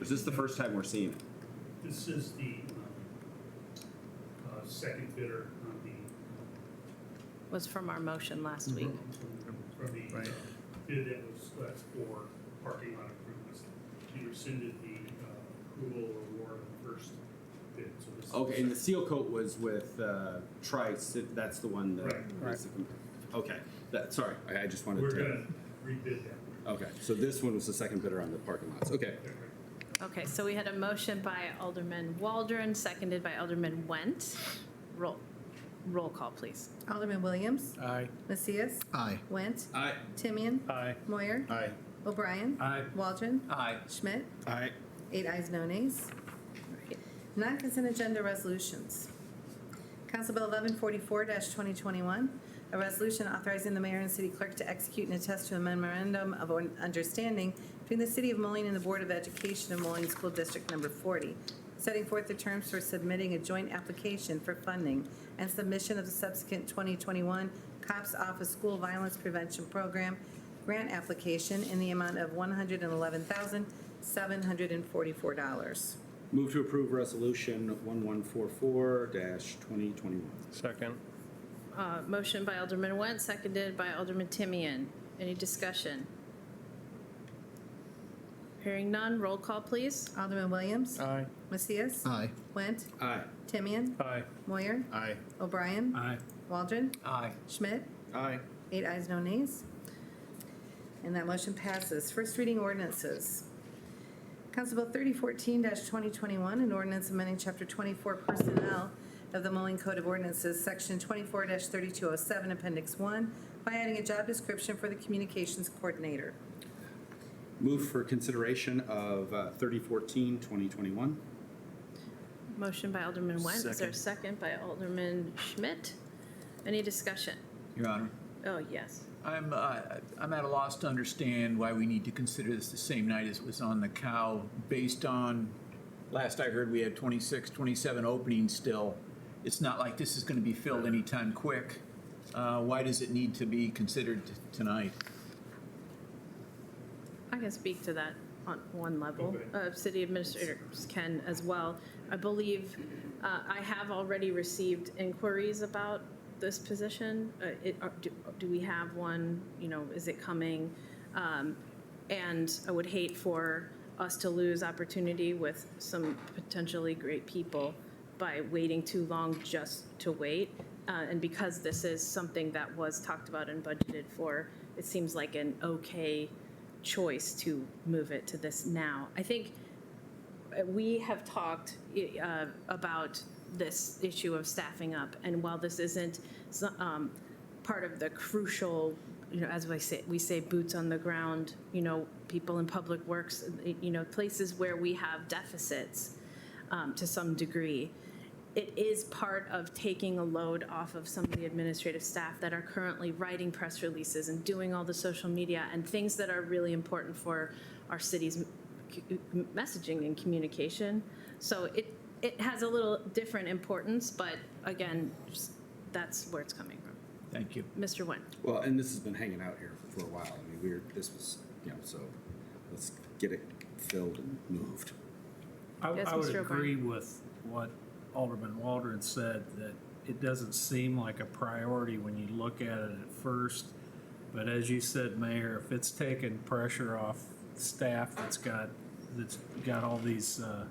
Is this the first time we're seeing it? This is the um, uh, second bidder on the, was from our motion last week. from the uh, bid that was, that's for parking lot improvements. You rescinded the uh, approval or award of the first bid, so this is. Okay, and the seal coat was with uh, Trice. that- That's the one that. Right. was the comp- Okay, that, sorry, I, I just wanted We're to. gonna rebid that one. Okay, so this one was the second bidder on the parking lots. Okay. Okay, so we had a motion by Alderman Waldron, seconded by Alderman Went. Roll, roll call, please. Alderman Williams. Aye. Macias. Aye. Went. Aye. Timian. Aye. Moyer. Aye. O'Brien. Aye. Waldron. Aye. Schmidt. Aye. Eight ayes, no nays. Non-consent agenda resolutions. Council Bill 1144-2021, a resolution authorizing the mayor and city clerk to execute and attest to a memorandum of understanding between the City of Moline and the Board of Education of Moline School District Number 40, setting forth the terms for submitting a joint application for funding and submission of the subsequent 2021 COPS Office School Violence Prevention Program grant application in the amount of $111,744. Move to approve resolution 1144-2021. Second. Uh, Motion by Alderman Went, seconded by Alderman Timian. Any discussion? Hearing none, roll call, please. Alderman Williams. Aye. Uh. Macias. Aye. Went. Aye. Timian. Aye. Moyer. Aye. O'Brien. Aye. Waldron. Aye. Schmidt. Aye. Eight ayes, no nays. And that motion passes. First reading ordinances. Council Bill 3014-2021, an ordinance amending Chapter 24 Personnel of the Moline Code of Ordinances, Section 24-3207, Appendix 1, by adding a job description for the communications coordinator. Move for consideration of uh, 3014, 2021. Motion by Alderman Went. Is there a second by Alderman Schmidt? Any discussion? Your Honor, Oh, yes. I'm, uh, I'm at a loss to understand why we need to consider this the same night as it was on the cow, based on, last I heard, we had 26, 27 openings still. It's not like this is going to be filled anytime quick. Uh, Why does it need to be considered t- tonight? I can speak to that on one level. Okay. Uh, City administrators can as well. I believe, uh, I have already received inquiries about this position. Uh, it- uh, Do do we have one, you know, is it coming? Um, And I would hate for us to lose opportunity with some potentially great people by waiting too long just to wait. Uh, And because this is something that was talked about and budgeted for, it seems like an okay choice to move it to this now. I think uh, we have talked i- uh, about this issue of staffing up, and while this isn't so- um, part of the crucial, you know, as we say, we say boots on the ground, you know, people in public works, you know, places where we have deficits um, to some degree. It is part of taking a load off of some of the administrative staff that are currently writing press releases and doing all the social media and things that are really important for our city's messaging and communication. So it, it has a little different importance, but again, just- that's where it's coming from. Thank you. Mr. Nguyen? Well, and this has been hanging out here for a while. I mean, we we're, this was, you know, so let's get it filled and moved. I, Yes, I would Mr. O'Brien. agree with what Alderman Waldron said, that it doesn't seem like a priority when you look at it at first. But as you said, Mayor, if it's taking pressure off staff that's got, that's got all these, uh,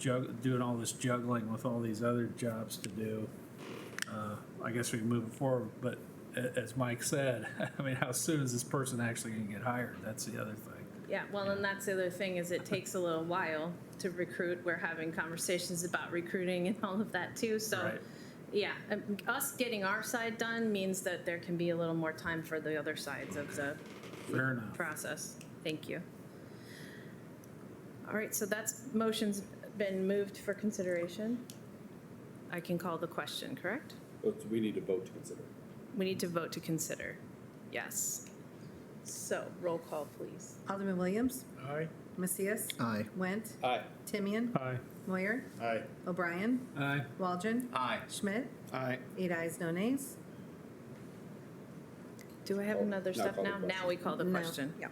jug, doing all this juggling with all these other jobs to do, uh, I guess we can move it forward. But a- as Mike said, I mean, how soon is this person actually gonna get hired? That's the other thing. Yeah, well, and that's the other thing, is it takes a little while to recruit. We're having conversations about recruiting and all of that too, so. Right. Yeah, um, us getting our side done means that there can be a little more time for the other sides of the Fair enough. process. Thank you. All right, so that's, motion's been moved for consideration. I can call the question, correct? But we need a vote to consider. We need to vote to consider. Yes. So roll call, please. Alderman Williams. Aye. Macias. Aye. Went. Aye. Timian. Aye. Moyer. Aye. O'Brien. Aye. Waldron. Aye. Schmidt. Aye. Eight ayes, no nays. Do I have Oh, another now step call the now? question. Now we call the No. question Yeah.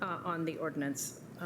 uh, on the ordinance.